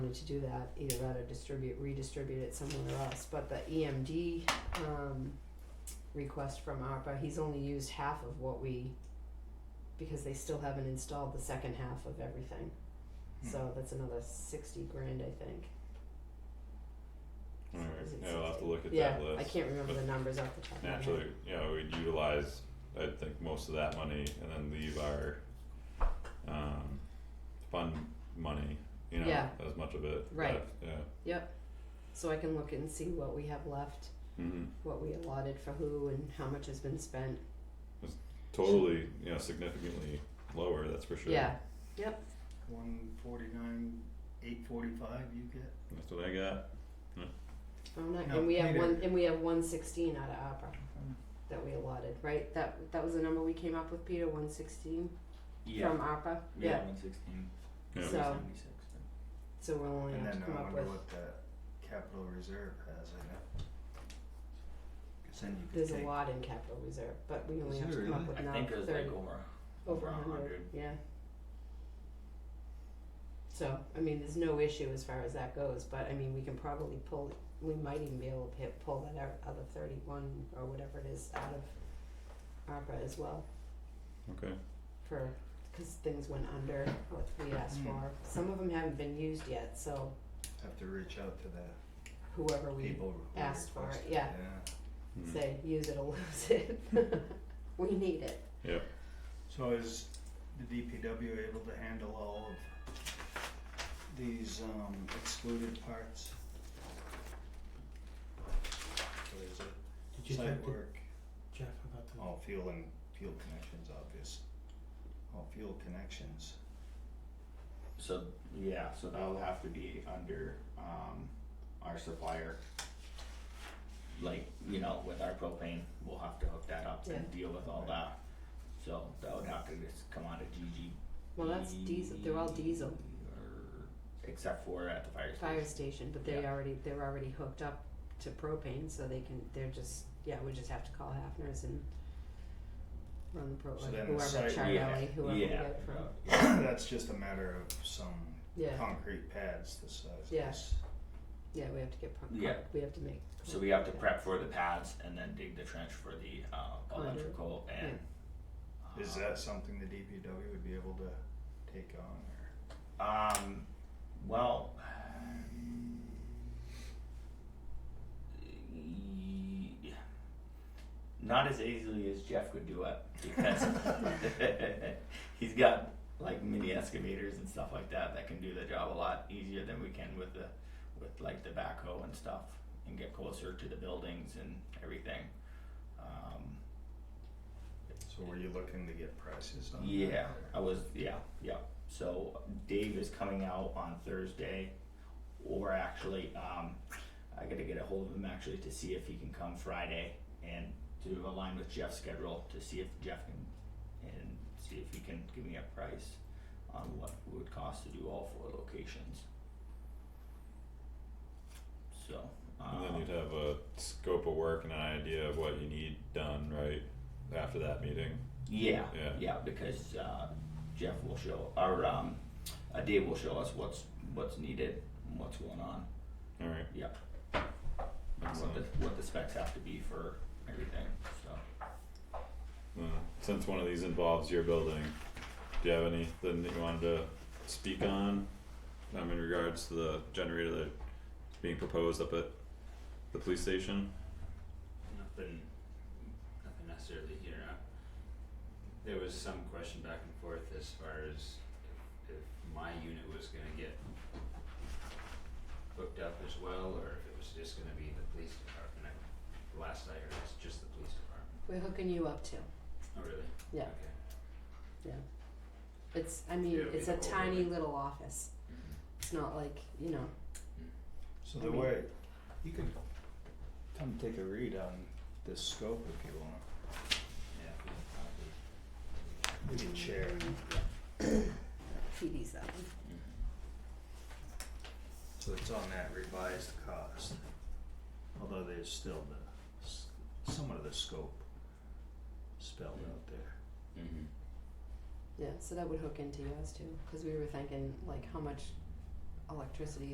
room to do that, either that or distribute, redistribute it somewhere else, but the EMD, um, request from ARPA, he's only used half of what we, because they still haven't installed the second half of everything, Hmm. Hmm. so that's another sixty grand, I think. Alright, Is it yeah, I'll have to 60? look at Yeah, that list. I can't remember but the numbers off the top of my head. Naturally, you know, we'd utilize, I think, most of that money and then leave our, um, fund money, you know, Yeah. as much of it. Right. left, Yeah, So I can look and see what we have left, hmm what we allotted for who and how much has been spent, totally, you know, significantly lower, that's for sure. yeah, One forty-nine, eight forty-five you get? That's what I got, I'm not, No, and we have neither. one, and we have one sixteen out of ARPA that we allotted, right? That, that was the number we came up with, Peter, one sixteen Yeah, from ARPA, we yeah, got one sixteen, yeah, So- seventy-six, so we'll only And have to then Oh, come I up with, wonder what the capital reserve has in it. Cause then you could there's a take, lot in capital reserve, but we only Is have to there come up really? with I now think it was like thirty, over, over over a a hundred, hundred. yeah. So, I mean, there's no issue as far as that goes, but I mean, we can probably pull, we might even be able to hit, pull that out- other thirty-one or whatever it is out of ARPA as well. okay, for because things went under what we asked Mm. for. Some of them haven't been used yet, so have to reach out to the whoever we people who asked for it, requested it, yeah. yeah. Hmm. Mhm. say, use it or lose it. we need it. So is the DPW able to handle all of these um excluded parts? What is it? Did you Site talk to work, Jeff about the? all fuel and fuel connections, obvious, all fuel connections. So, yeah, so that'll have to be under, um, our supplier. Like, you know, with our propane, we'll have to hook that up and deal with all that, so that would have to just come out of GG. Well, that's diesel. They're all diesel Except for at the fire fire station, station, but they Yeah. already they're already hooked up to propane, so they can. They're just yeah. We just have to call Hafner's and run the propane. So then the whoever site- Charlie, Yeah, whoever we yeah. get it from. That's just a matter of some Yeah, concrete pads the size of Yeah. this. yeah. We have to get. Pro- Yeah. We have to make. so we have to prep for the pads and then dig the trench for the, uh, Conduit. electrical and. uh, Uh-huh. Is that something the DPW would be able to take on or? Um, well, y- not as easily as Jeff could do it because he's got like mini excavators and stuff like that that can do the job a lot easier than we can with the with like the backhoe and stuff and get closer to the buildings and everything. Um, So were you looking to get prices on that? yeah, or- I was. Yeah, yeah. So Dave is coming out on Thursday, or actually, um, I got to get a hold of him actually to see if he can come Friday and to align with Jeff's schedule to see if Jeff can and see if he can give me a price on what it would cost to do all four locations. So. and then um, you'd have a scope of work and an idea of what you need done, right, after that meeting, Yeah, Yeah. because uh, Jeff will show, or um, uh, Dave will show us what's what's needed, and what's going on, alright, yeah, and what excellent. the what the specs have to be for everything. So Uh, since one of these involves your building, do you have anything that you wanted to speak on? Um, in regards to the generator that's being proposed up at the police station? Nothing, nothing necessarily here. Uh, There was some question back and forth as far as if, if my unit was gonna get hooked up as well, or if it was just gonna be the police department. I- Last I heard, it's just the police department. We're hooking you up too. Oh, really? Yeah. Okay. It's, I mean, Yeah, we it's a have all tiny really- little office. Mm-hmm. It's not like, you know, So I the mean- way, you could come take a read on this scope if you want. Yeah, we can probably. We can share. PD's that one. So it's on that revised cost. Although there's still the, s- some of the scope spelled out there. Mm-hmm. Yeah, so that would hook into yours too, cause we were thinking like how much electricity